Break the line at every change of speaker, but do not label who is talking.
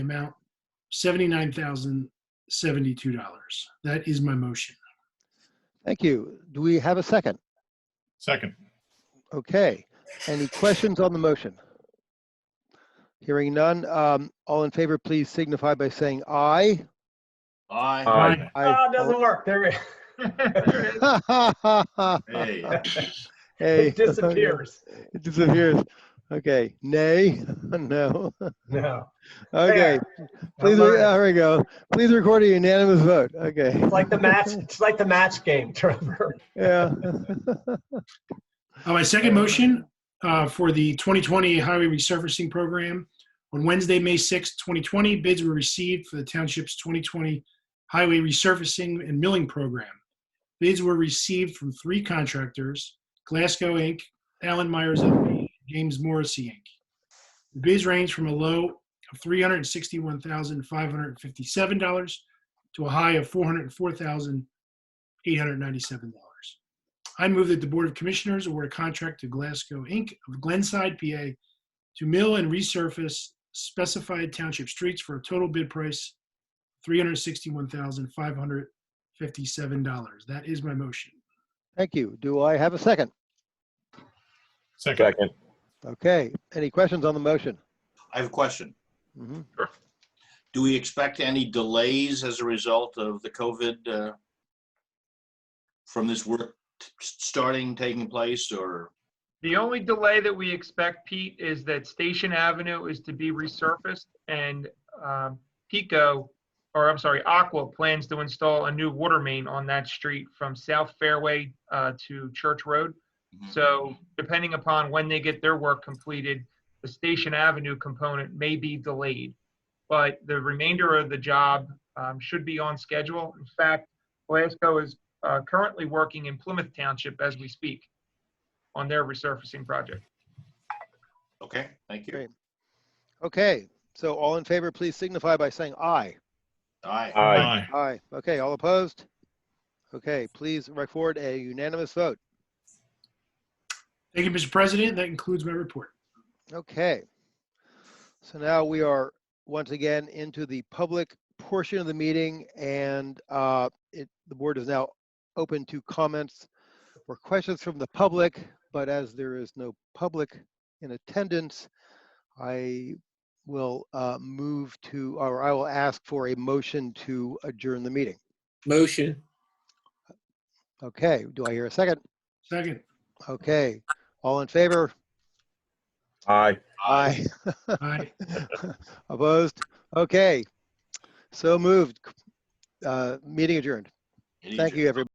amount $79,072. That is my motion.
Thank you. Do we have a second?
Second.
Okay. Any questions on the motion? Hearing none, um, all in favor, please signify by saying aye.
Aye.
Aye.
Ah, it doesn't work. There it there it
Hey.
is.
Hey.
It disappears.
It disappears. Okay. Nay? No.
No.
Okay.
There.
Please,
Number-
there we go. Please record a unanimous vote. Okay.
It's like the match, it's like the match game, Trevor.
Yeah.
Uh, My second motion uh, for the 2020 Highway Resurfacing Program. On Wednesday, May 6, 2020, bids were received for the township's 2020 Highway Resurfacing and Milling Program. Bids were received from three contractors, Glasgow Inc., Allen Myers LP, and James Morrissey Inc. The bids range from a low of $361,557 to a high of $404,897. I move that the Board of Commissioners award a contract to Glasgow Inc. of Glenside, PA to mill and resurface specified township streets for a total bid price $361,557. That is my motion.
Thank you. Do I have a second?
Second.
Second.
Okay. Any questions on the motion?
I have a question.
Mhm.
Do we expect any delays as a result of the COVID uh, from this work t- starting, taking place, or?
The only delay that we expect, Pete, is that Station Avenue is to be resurfaced and um, Pico, or I'm sorry, Aqua plans to install a new water main on that street from South Fairway uh, to Church Road.
Mm-hmm.
So depending upon when they get their work completed, the Station Avenue component may be delayed. But the remainder of the job um, should be on schedule. In fact, Glasgow is uh, currently working in Plymouth Township as we speak on their resurfacing project.
Okay, thank you.
Great. Okay. So all in favor, please signify by saying aye. Uh,
Aye.
Aye.
Aye. Okay. All opposed? Okay. Please record a unanimous vote.
Thank you, Mr. President. That concludes my report.
Okay. So now we are once again into the public portion of the meeting and uh, it, the board is now open to comments or questions from the public, but as there is no public in attendance, I will uh, move to, or I will ask for a motion to adjourn the meeting.
Motion.
Okay, do I hear a second?
Second.
Okay, all in favor?
Aye.
Aye.
Aye.
Opposed? Okay. So moved. Uh, Meeting adjourned. Thank you, everybody.